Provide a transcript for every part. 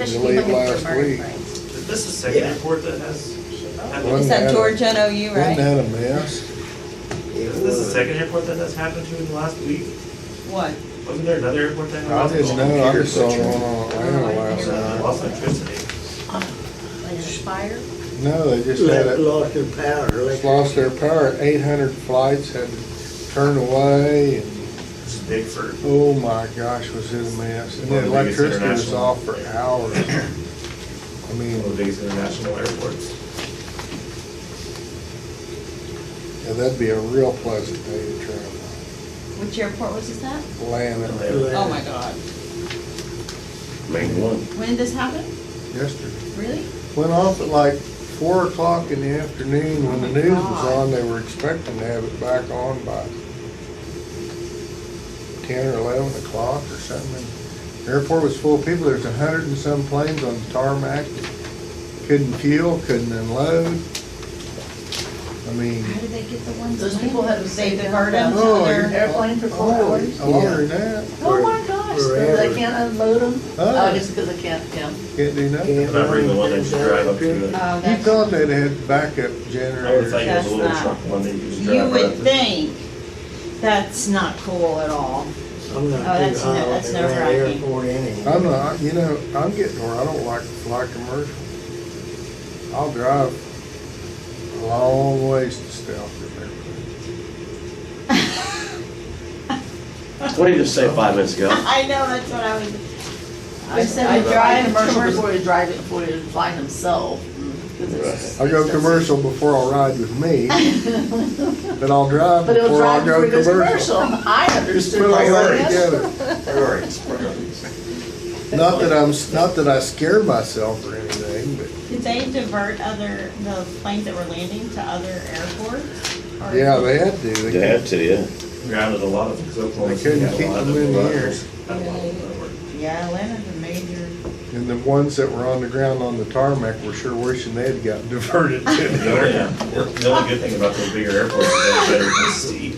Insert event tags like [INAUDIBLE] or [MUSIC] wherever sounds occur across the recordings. Especially late looking for last murder week. frames. Is this the second report that has? One happened? Is had that a- George NOU, Wasn't right? that a mess? Is this the second report that has happened to in the last week? What? Wasn't there another report that? Uh, I didn't know, I just saw it on our Oh, I radar last hear I that. night. Lost electricity. Like a fire? No, they just had Let- it, Lost their power, just electric, lost their power, eight hundred flights had to turn away, and, It's big for, oh my gosh, was it a mess. And the electricity was off for hours. I one of the mean, biggest international airports. yeah, that'd be a real pleasant day to travel, Which airport was this at? Atlanta, Oh, my God. Main one. When did this happen? yesterday. Really? Went off at like four o'clock in the afternoon when the Oh my news was God. on. They were expecting to have it back on by ten or eleven o'clock or something. And The airport was full of people. There's a hundred and some planes on the tarmac. Couldn't fuel, couldn't unload. I mean, How did they get the ones? Those people had to They save their divert money. them to Oh, their- Airplane for four oh, hours? longer than that. Oh, my gosh. They forever. can't unload them? Oh. Oh, just because they can't, yeah. Can't do nothing. Can I bring the one that you drive up to? the- Oh, You that's- thought they'd had backup I would generators. think it was That's a little not- truck one that you just You drive right up would to. think, that's not cool at all. I'm not Oh, too that's high ne- on that's the nerve-wracking. airport anyway. I'm not, you know, I'm getting where I don't like to fly commercial. I'll drive a long ways to stay off the airplane. What did you just say five minutes ago? [LAUGHS] I know, that's what I was, I I said said the to drive drive commercial Mm-hmm. commercial. before he drive it, before he fly himself. 'cause it's I go expensive. commercial before I'll ride with [LAUGHS] me, but I'll drive But he'll before drive I'll before go he goes commercial. commercial. [LAUGHS] I understood. Put all that that. together. Priorities, priorities. Not that I'm, not that I scare myself or anything, but Did they divert other, the planes that were landing to other airports? Or- yeah, they had to. They They had to, yeah. Grounded a lot of them, 'cause Oklahoma They City couldn't had a keep lot of them in the them. air. Had a lot of them that were- Yeah, Atlanta's a major. couldn't- And the ones that were on the ground on the tarmac were sure wishing they'd gotten [LAUGHS] diverted to the The other. only- the only good thing about those bigger airports is they're better to see.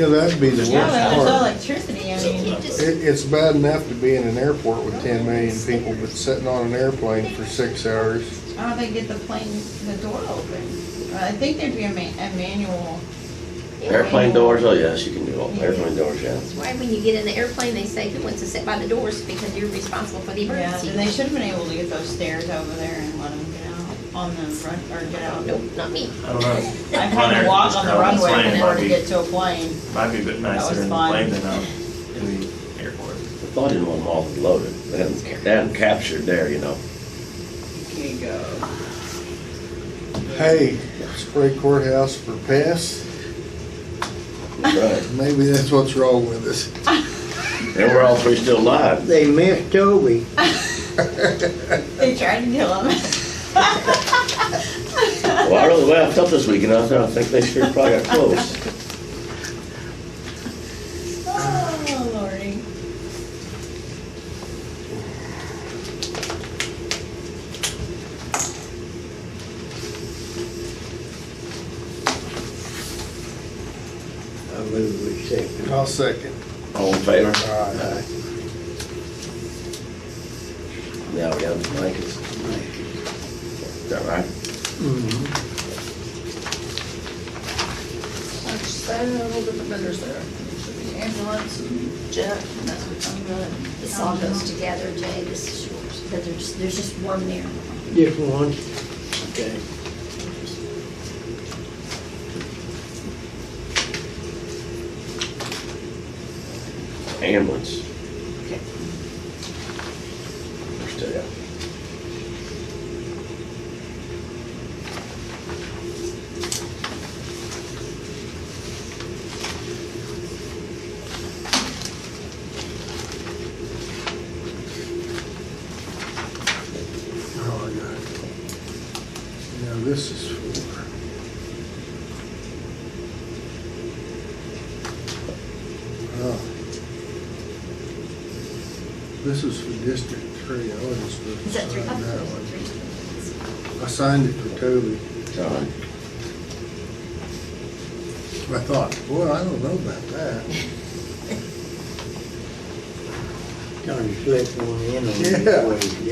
Yeah, that'd be the worst Yeah, part. but there's no electricity, I So, mean. uh, It, it's bad enough to be in an airport with ten million people, but sitting on an airplane for six hours. I don't think get the plane, the door open. I think there'd be a ma- a manual. Airplane doors, oh yes, you can do all, airplane doors, yeah. That's why when you get in the airplane, they say who wants to sit by the doors because you're responsible for the Yeah, emergency. and they should have been able to get those stairs over there and let them get out on the run, or get out. Nope, not me. I don't know, I've had to walk on the Runner, just runway in grab order the to plane. get to a plane. might be a bit nicer was in the fun. plane than out in the airport. I thought you didn't want them all loaded. They hadn't, they hadn't captured there, you know. Here you go. Hey, spray courthouse for pests, Right. maybe that's what's wrong with us. And we're all three still alive. They missed Toby. They tried to kill [LAUGHS] him. Well, I really laughed up this weekend. I was, I think they sure probably got close. Oh, lordy. I move we second. I'll second. All in favor? Aye. Now we got the blankets. Is that right? Just add a little different vendors there. Should be ambulance and jet, and that's what I'm doing. This all goes together, Jay, this is yours, because there's, there's just one there. Just one. Okay. Ambulance. We're still out. Oh, I got it. Now, this is for, oh. This is for District Three, I wasn't supposed to Is that three sign that copies? one. Three. I signed it for Toby. John, I thought, boy, I don't know about that. Trying to slip one in on Yeah. you, what you do.